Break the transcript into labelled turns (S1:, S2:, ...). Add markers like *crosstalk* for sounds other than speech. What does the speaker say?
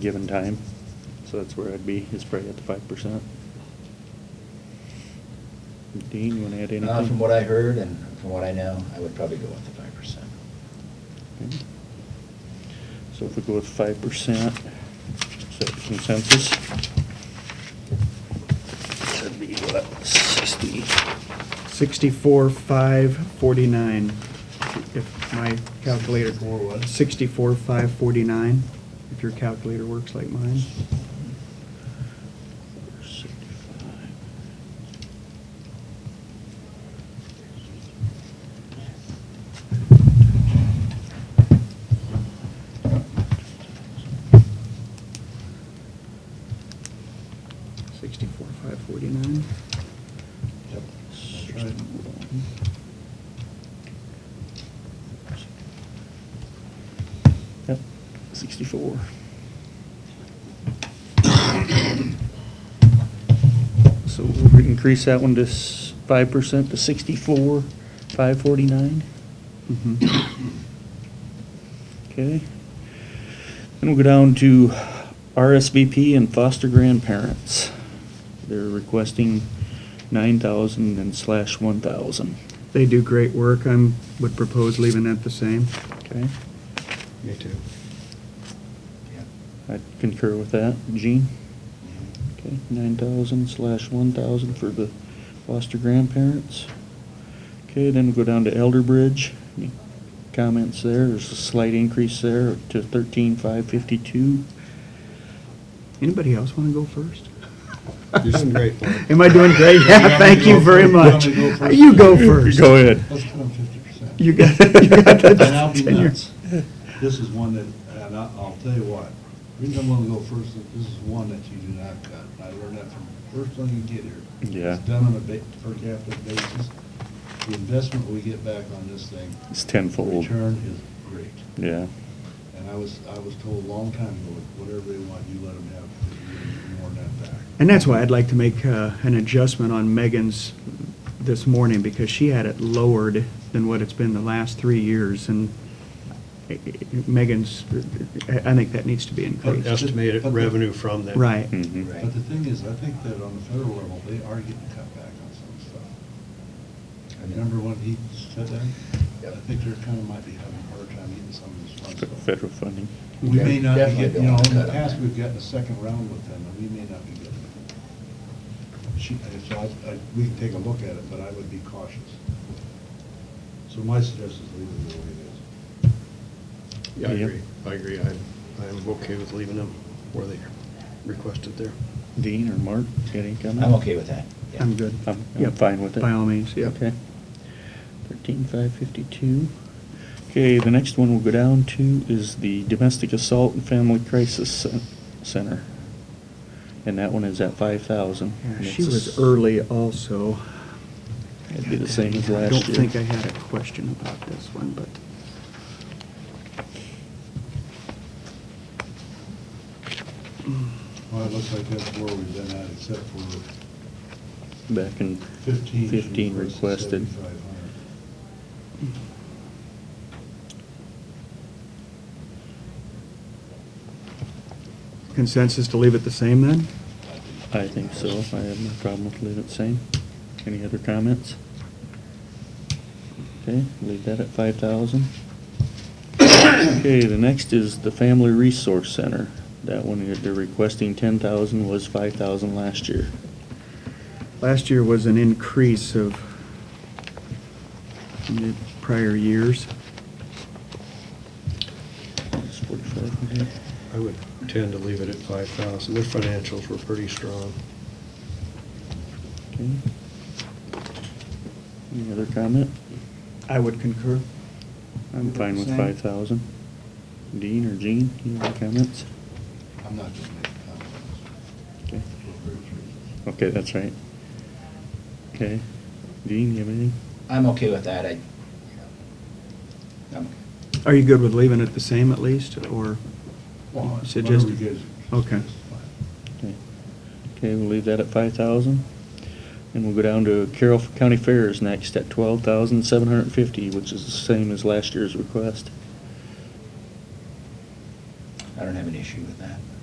S1: given time. So that's where I'd be, is probably at the five percent. Dean, you wanna add anything?
S2: Uh, From what I heard and from what I know, I would probably go with the five percent.
S1: Okay. So if we go with five percent, is that consensus? That'd be what, sixty?
S3: 64, 5, 49, if my calculator.
S2: 64 what?
S3: 64, 5, 49, if your calculator works like mine. Sixty-four, five forty-nine.
S1: Yep, sixty-four. So we'll increase that one to five percent to sixty-four, five forty-nine,
S3: Mhm.
S1: okay? Then we'll go down to RSVP and foster grandparents. They're requesting nine thousand and slash one thousand,
S3: They do great work. I would propose leaving that the same.
S1: okay?
S2: Me too.
S1: I concur with that. Gene? Okay, nine thousand slash one thousand for the foster grandparents. Okay, then we go down to Elder Bridge. Any Comments there, there's a slight increase there to thirteen five fifty-two.
S3: Anybody else want to go first?
S4: You're doing great, Paul.
S3: *laughs* Am I doing great?
S4: You want me
S3: Yeah,
S4: to
S3: thank you
S4: go
S3: very much.
S4: first? You want me to
S3: You go first.
S1: Go ahead.
S4: Let's put them fifty percent.
S3: You got, *laughs* you
S4: *laughs*
S3: got
S4: And I'll
S3: the
S4: be
S3: tenure.
S4: nuts. This is one that, and I- I'll tell you what, the reason I'm gonna go first is this is one that you do not cut. I learned that from the first thing you get here.
S1: Yeah.
S4: It's done on a ba- per capita basis. The investment we get back on this thing,
S1: It's tenfold.
S4: return is great.
S1: Yeah,
S4: And I was, I was told a long time ago, whatever they want, you let them have, because you're gonna get more than that back.
S3: And that's why I'd like to make uh, an adjustment on Megan's this morning, because she had it lowered than what it's been the last three years, and i- i- Megan's, I I think that needs to be
S4: But-
S3: increased.
S5: estimated
S4: but the-
S5: revenue from that.
S3: Right.
S1: Mhm.
S2: Right.
S4: But the thing is, I think that on the federal level, they are getting cut back on some stuff. I Remember when he said that? I
S2: Yep.
S4: think they're kind of might be having a hard time getting some of this fun
S1: Fe-
S4: stuff.
S1: federal funding.
S4: We may not be
S2: Definitely don't
S4: getting, you know,
S2: want to
S4: in the
S2: cut on
S4: past,
S2: that.
S4: we've gotten a second round with them, and we may not be getting it. She, I- so I, I, we can take a look at it, but I would be cautious. So my suggestion is leave it the way it
S5: Yeah, I
S1: Yep.
S5: agree, I agree, I, I'm okay with leaving them where they requested there.
S1: Dean or Mark, got any comment?
S2: I'm okay with that. yeah.
S3: I'm good.
S1: I'm, I'm
S3: Yep.
S1: fine with it.
S3: By all means, yep.
S1: Okay. Thirteen five fifty-two. Okay, the next one we'll go down to is the Domestic Assault and Family Crisis Cen- Center. And that one is at five thousand.
S3: Yeah, She was early also.
S1: It'd be the same as
S3: I
S1: last year.
S3: don't think I had a question about this one, but
S4: is. Well, it looks like that's where we've been at, except for
S1: Back in
S4: fifteen. she
S1: fifteen requested.
S4: 7,500.
S3: consensus to leave it the same then?
S1: I think so. I have no problem with leaving it same. Any other comments? Okay, leave that at five thousand. Okay, the next is the Family Resource Center. That one, they're requesting ten thousand, was five thousand last year.
S3: Last year was an increase of the prior years.
S1: It's forty-five hundred.
S5: I would tend to leave it at five thousand, their financials were pretty strong.
S1: Okay. Any other comment?
S3: I would concur.
S1: I'm fine with
S3: Same.
S1: five thousand. Dean or Jean, any other comments?
S4: I'm not just making comments.
S1: Okay,
S4: for various reasons.
S1: Okay, that's right. Okay. Dean, you have anything?
S2: I'm okay with that, I, you know, I'm,
S3: Are you good with leaving it the same at least, or?
S4: Well, whatever
S3: Suggest-
S4: you guys-
S3: Okay.
S4: suggest is fine.
S1: Okay, Okay, we'll leave that at five thousand. And we'll go down to Carroll County Fairs next at twelve thousand seven hundred and fifty, which is the same as last year's request.
S2: I don't have an issue with that.